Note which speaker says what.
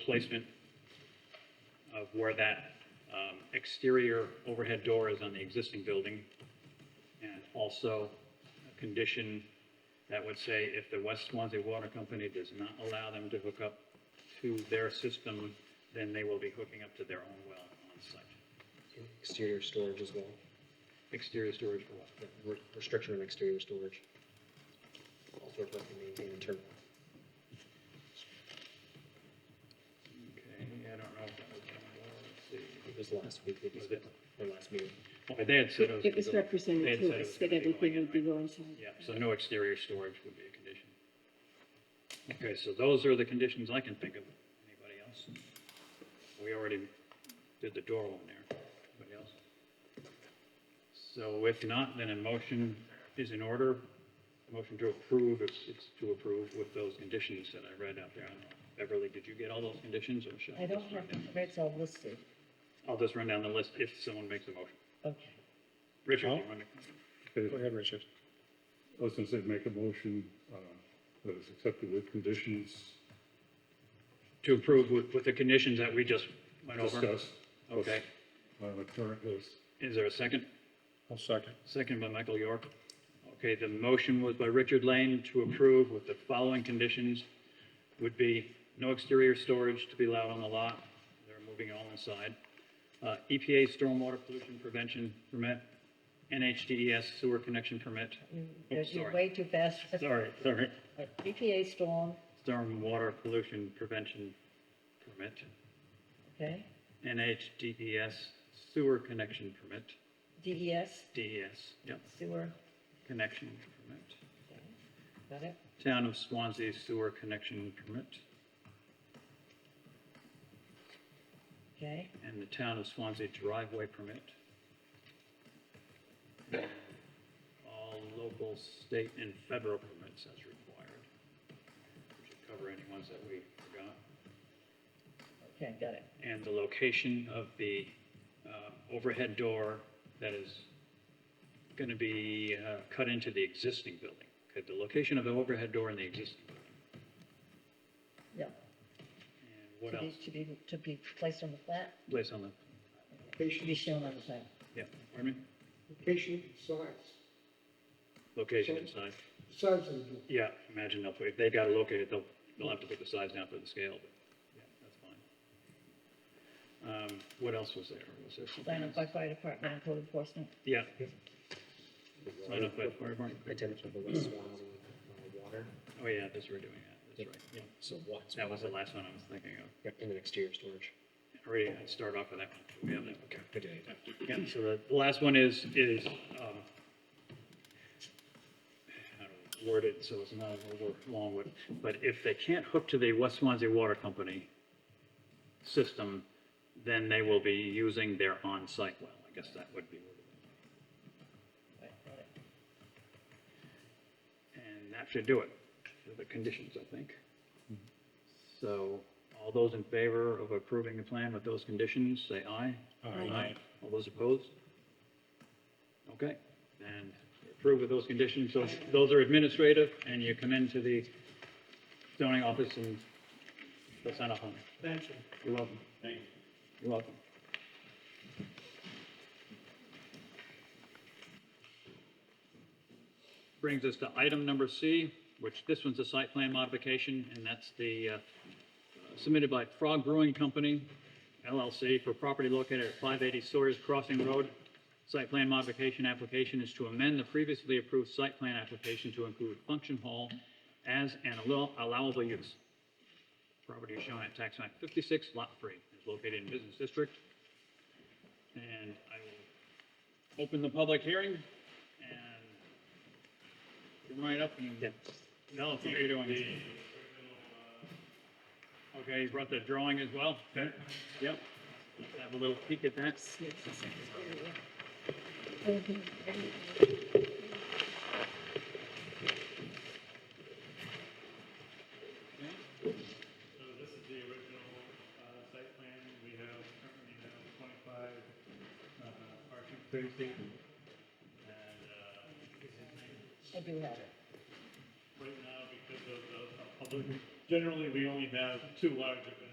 Speaker 1: placement of where that um, exterior overhead door is on the existing building. And also a condition that would say if the West Swansea Water Company does not allow them to hook up to their system, then they will be hooking up to their own well on site.
Speaker 2: Exterior storage as well,
Speaker 1: Exterior storage for water.
Speaker 2: Yeah, re- restriction on exterior storage. Also, if I can maintain internal.
Speaker 1: Okay, I don't know if that was, let's see.
Speaker 2: It was last week, we
Speaker 1: Was
Speaker 2: discussed,
Speaker 1: it?
Speaker 2: or last meeting.
Speaker 1: Well, they had said it was.
Speaker 3: It was
Speaker 1: gonna go- they
Speaker 3: represented
Speaker 1: had
Speaker 3: to
Speaker 1: said it
Speaker 3: us
Speaker 1: was gonna
Speaker 3: that
Speaker 1: be
Speaker 3: everything
Speaker 1: going
Speaker 3: would be
Speaker 1: in, right?
Speaker 3: going inside.
Speaker 1: Yeah, so no exterior storage would be a condition. Okay, so those are the conditions I can think of. Anybody else? We already did the door one there. Anybody else? So if not, then a motion is in order. Motion to approve, if it's to approve with those conditions that I read out there. I don't know. Beverly, did you get all those conditions or should I
Speaker 4: I
Speaker 1: just
Speaker 4: don't
Speaker 1: run
Speaker 4: have,
Speaker 1: down?
Speaker 4: where it's all listed.
Speaker 1: I'll just run down the list if someone makes a motion.
Speaker 4: Okay.
Speaker 1: Richard, you run it.
Speaker 5: Okay,
Speaker 2: Go ahead, Richard.
Speaker 5: I was gonna say, make a motion, uh, that is accepted with conditions
Speaker 1: To approve with, with the conditions that we just went over?
Speaker 5: discussed.
Speaker 1: Okay.
Speaker 5: On the uh, current list.
Speaker 1: Is there a second?
Speaker 5: I'll second.
Speaker 1: Second by Michael York. Okay, the motion was by Richard Lane to approve with the following conditions would be no exterior storage to be allowed on the lot. They're moving all inside. Uh, EPA stormwater pollution prevention permit, NHDES E sewer connection permit.
Speaker 4: You-
Speaker 1: Oh,
Speaker 4: You're
Speaker 1: sorry.
Speaker 4: you're way too fast.
Speaker 1: Sorry, sorry.
Speaker 4: EPA storm,
Speaker 1: Stormwater pollution prevention permit,
Speaker 4: okay,
Speaker 1: NHDES E sewer connection permit,
Speaker 4: DES,
Speaker 1: DES, yep.
Speaker 4: E sewer,
Speaker 1: connection permit.
Speaker 4: got it?
Speaker 1: Town of Swansea sewer connection permit
Speaker 4: Okay,
Speaker 1: and the town of Swansea driveway permit. All local, state and federal permits as required. We Should cover any ones that we forgot.
Speaker 4: okay, got it.
Speaker 1: And the location of the uh, overhead door that is going to be uh, cut into the existing building. Okay, the location of the overhead door in the existing building.
Speaker 4: Yeah.
Speaker 1: And what
Speaker 4: To be-
Speaker 1: else?
Speaker 4: To be, to be placed on the flat,
Speaker 1: Place on the,
Speaker 4: to be shown on the plan.
Speaker 1: yeah, pardon me?
Speaker 6: Location, size,
Speaker 1: Location and size.
Speaker 6: size of the building.
Speaker 1: Yeah, imagine they'll, put- if they've got to locate it, they'll, they'll have to put the size down for the scale, but, yeah, that's fine. Um, what else was there? Was there
Speaker 4: Plan
Speaker 1: something
Speaker 4: up by
Speaker 1: else?
Speaker 4: fire department and code enforcement.
Speaker 1: Yeah, sign up by fire department.
Speaker 2: Attention of the West Swansea uh, Water,
Speaker 1: Oh, yeah, that's, we're doing that, that's right, yeah.
Speaker 2: so what?
Speaker 1: That was the last one I was thinking of.
Speaker 2: Yep, And then exterior storage.
Speaker 1: Already, I start off with that one. We have that, okay.
Speaker 2: Good idea.
Speaker 1: Yeah, so the- the last one is, is, um, how to word it so it's not over long, but, but if they can't hook to the West Swansea Water Company system, then they will be using their on-site well. I guess that would be. what it
Speaker 4: Right, got it.
Speaker 1: is. And that should do it, for the conditions, I think. So all those in favor of approving the plan with those conditions, say aye. Aye. All those opposed? Okay, and approve with those conditions, so those are administrative, and you come into the zoning office and they'll sign off on it.
Speaker 6: Thank you.
Speaker 1: You're welcome. Thank you. are welcome. Brings us to item number C, which this one's a site plan modification, and that's the, uh, submitted by Frog Brewing Company LLC for property located at 580 Sawyer's Crossing Road. Site plan modification application is to amend the previously approved site plan application to include function hall as an allow- allowable use. Property is shown at tax map 56, lot 3, is located in Business District. And I will open the public hearing and come right up and tell us what you're doing. Okay, you brought the drawing as well? Yep. Let's Have a little peek at that.
Speaker 4: Mm-hmm.
Speaker 7: So this is the original uh, site plan. We have currently now 25 uh, parking spaces. And uh,
Speaker 4: I do have it.
Speaker 7: uh, right now, because of the uh, public, generally, we only have two large events